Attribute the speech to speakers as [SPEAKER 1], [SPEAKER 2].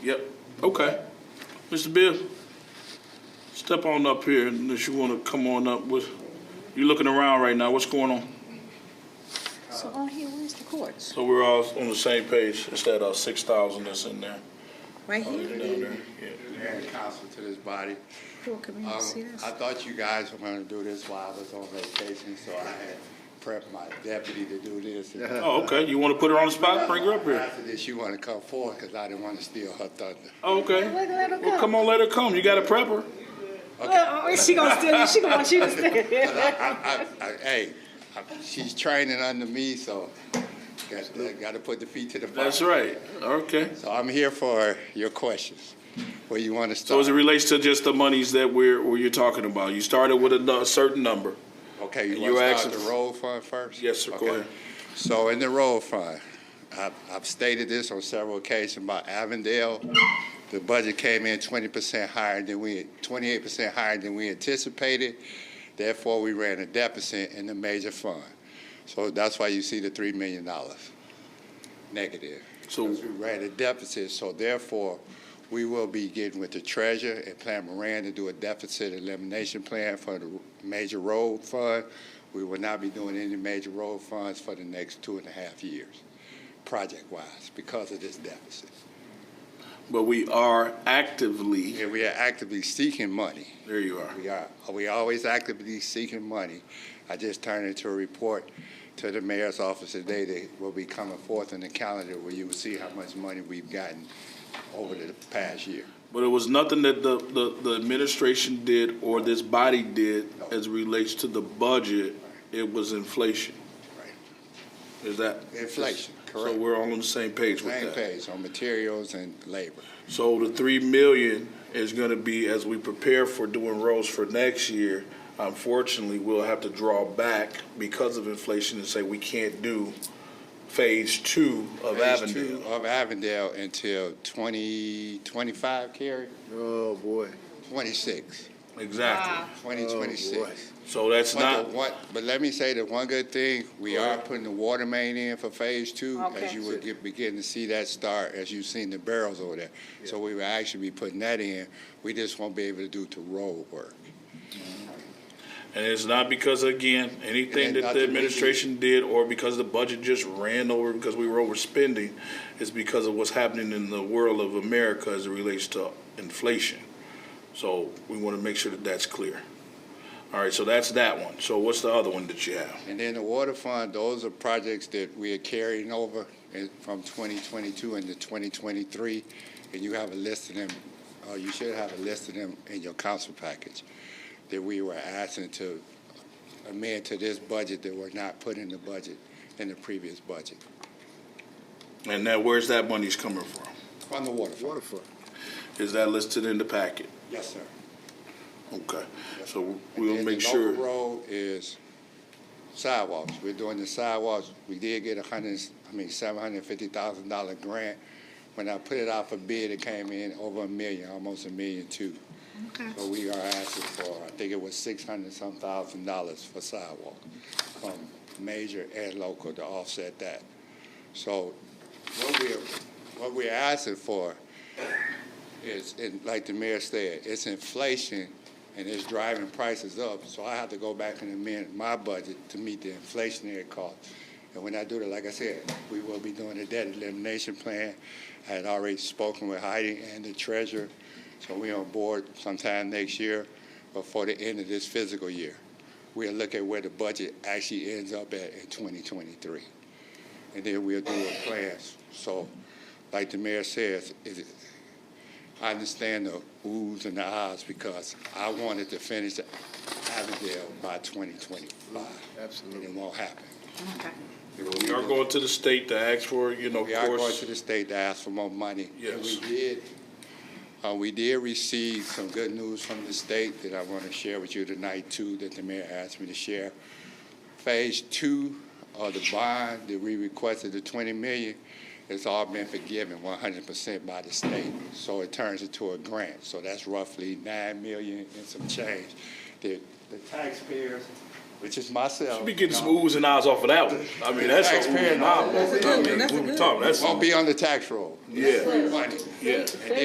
[SPEAKER 1] Yep, okay. Mr. Bill, step on up here unless you want to come on up with, you looking around right now, what's going on?
[SPEAKER 2] So on here, where's the courts?
[SPEAKER 1] So we're all on the same page, it's that, uh, six thousand that's in there.
[SPEAKER 2] Right
[SPEAKER 1] Down
[SPEAKER 2] here?
[SPEAKER 1] there, Oh, yeah.
[SPEAKER 3] And council to this body.
[SPEAKER 2] Cool, come here
[SPEAKER 3] Um,
[SPEAKER 2] and see this.
[SPEAKER 3] I thought you guys were gonna do this while I was on vacation, so I had prepped my deputy to do this.
[SPEAKER 1] Oh, okay, you want to put her on the spot, bring her up here?
[SPEAKER 3] After this, you wanna come forward, cause I didn't wanna steal her thunder.
[SPEAKER 1] Oh, Okay,
[SPEAKER 2] Let her- let her
[SPEAKER 1] well,
[SPEAKER 2] come.
[SPEAKER 1] come on, let her come, you got to prep her.
[SPEAKER 2] Uh, uh, She gonna steal, she gonna want you to steal.
[SPEAKER 3] I, I, I, hey, I- she's training under me, so got, gotta put the feet to the fire.
[SPEAKER 1] That's right, okay.
[SPEAKER 3] So I'm here for your questions. Where you wanna
[SPEAKER 1] So as it
[SPEAKER 3] start?
[SPEAKER 1] relates to just the monies that we're, where you're talking about, you started with a nu- certain number.
[SPEAKER 3] Okay,
[SPEAKER 1] you
[SPEAKER 3] you wanna
[SPEAKER 1] asked-
[SPEAKER 3] start the road fund first?
[SPEAKER 1] Yes, sir, go
[SPEAKER 3] Okay.
[SPEAKER 1] ahead.
[SPEAKER 3] So in the road fund, I've, I've stated this on several occasions about Avondale. The budget came in twenty percent higher than we, twenty-eight percent higher than we anticipated. Therefore, we ran a deficit in the major fund. So that's why you see the three million dollars negative.
[SPEAKER 1] So,
[SPEAKER 3] We ran a deficit, so therefore, we will be getting with the treasurer and Plan Moran to do a deficit elimination plan for the major road fund. We will not be doing any major road funds for the next two and a half years, project-wise, because of this deficit.
[SPEAKER 1] but we are actively,
[SPEAKER 3] And we are actively seeking money.
[SPEAKER 1] there you are.
[SPEAKER 3] We are, we always actively seeking money. I just turned into a report to the mayor's office today that will be coming forth in the calendar where you will see how much money we've gotten over the past year.
[SPEAKER 1] But it was nothing that the, the, the administration did or this body did as relates to the budget. It was inflation.
[SPEAKER 3] Right.
[SPEAKER 1] Is that?
[SPEAKER 3] Inflation,
[SPEAKER 1] So
[SPEAKER 3] correct.
[SPEAKER 1] we're all on the same page with
[SPEAKER 3] Same
[SPEAKER 1] that.
[SPEAKER 3] page on materials and labor.
[SPEAKER 1] So the three million is gonna be, as we prepare for doing roads for next year, unfortunately, we'll have to draw back because of inflation and say we can't do phase two of
[SPEAKER 3] Phase
[SPEAKER 1] Avondale.
[SPEAKER 3] two Of Avondale until twenty, twenty-five, Carrie?
[SPEAKER 4] Oh, boy.
[SPEAKER 3] Twenty-six,
[SPEAKER 1] Exactly.
[SPEAKER 3] twenty
[SPEAKER 1] Oh,
[SPEAKER 3] twenty-six.
[SPEAKER 1] So that's
[SPEAKER 3] But
[SPEAKER 1] not,
[SPEAKER 3] the one, but let me say the one good thing, we are putting the water main in for phase two. As
[SPEAKER 2] Okay.
[SPEAKER 3] you would get, begin to see that start, as you've seen the barrels over there. So we will actually be putting that in. We just won't be able to do to road work.
[SPEAKER 1] and it's not because, again, anything
[SPEAKER 3] And
[SPEAKER 1] that
[SPEAKER 3] not
[SPEAKER 1] the
[SPEAKER 3] to mention-
[SPEAKER 1] administration did or because the budget just ran over because we were overspending, it's because of what's happening in the world of America as it relates to inflation. So we want to make sure that that's clear. All right, so that's that one. So what's the other one that you have?
[SPEAKER 3] And then the water fund, those are projects that we are carrying over in- from 2022 into 2023, and you have a list of them, or you should have a list of them in your council package that we were asking to amend to this budget that were not put in the budget, in the previous budget,
[SPEAKER 1] And now where's that money's coming from?
[SPEAKER 3] from the water fund.
[SPEAKER 4] Waterfront.
[SPEAKER 1] Is that listed in the packet?
[SPEAKER 3] Yes, sir.
[SPEAKER 1] Okay, so
[SPEAKER 3] And
[SPEAKER 1] we'll
[SPEAKER 3] then
[SPEAKER 1] make
[SPEAKER 3] The
[SPEAKER 1] sure.
[SPEAKER 3] local road is sidewalks. We're doing the sidewalks. We did get a hundred, I mean, seven hundred and fifty thousand dollar grant. When I put it out for bid, it came in over a million, almost a million two.
[SPEAKER 2] Okay.
[SPEAKER 3] So we are asking for, I think it was six hundred some thousand dollars for sidewalk from major and local to offset that. So what we're, what we're asking for is, and like the mayor said, it's inflation and it's driving prices up. So I have to go back and amend my budget to meet the inflationary cost. And when I do that, like I said, we will be doing a debt elimination plan. I had already spoken with Heidi and the treasurer, so we on board sometime next year before the end of this fiscal year. We'll look at where the budget actually ends up at in 2023. And then we'll do a plan. So like the mayor says, it, I understand the oohs and the ahs because I wanted to finish Avondale by 2025. And it
[SPEAKER 4] Absolutely.
[SPEAKER 3] won't happen.
[SPEAKER 2] Okay.
[SPEAKER 1] We are going to the state to ask for, you know, of
[SPEAKER 3] We are going
[SPEAKER 1] course.
[SPEAKER 3] to the state to ask for more money. And
[SPEAKER 1] Yes.
[SPEAKER 3] We did, uh, we did receive some good news from the state that I want to share with you tonight too, that the mayor asked me to share. Phase two of the bond that we requested, the 20 million, it's all been forgiven 100% by the state. So it turns into a grant. So that's roughly 9 million and some change that the taxpayers which is myself.
[SPEAKER 1] Be getting some oohs and ahs off of that one. I mean, that's a ooh
[SPEAKER 3] Taxpayer
[SPEAKER 1] and ah.
[SPEAKER 3] dollars.
[SPEAKER 1] I mean, what we talking, that's,
[SPEAKER 3] Won't be on the tax roll.
[SPEAKER 1] yeah,
[SPEAKER 3] Money.
[SPEAKER 1] yeah.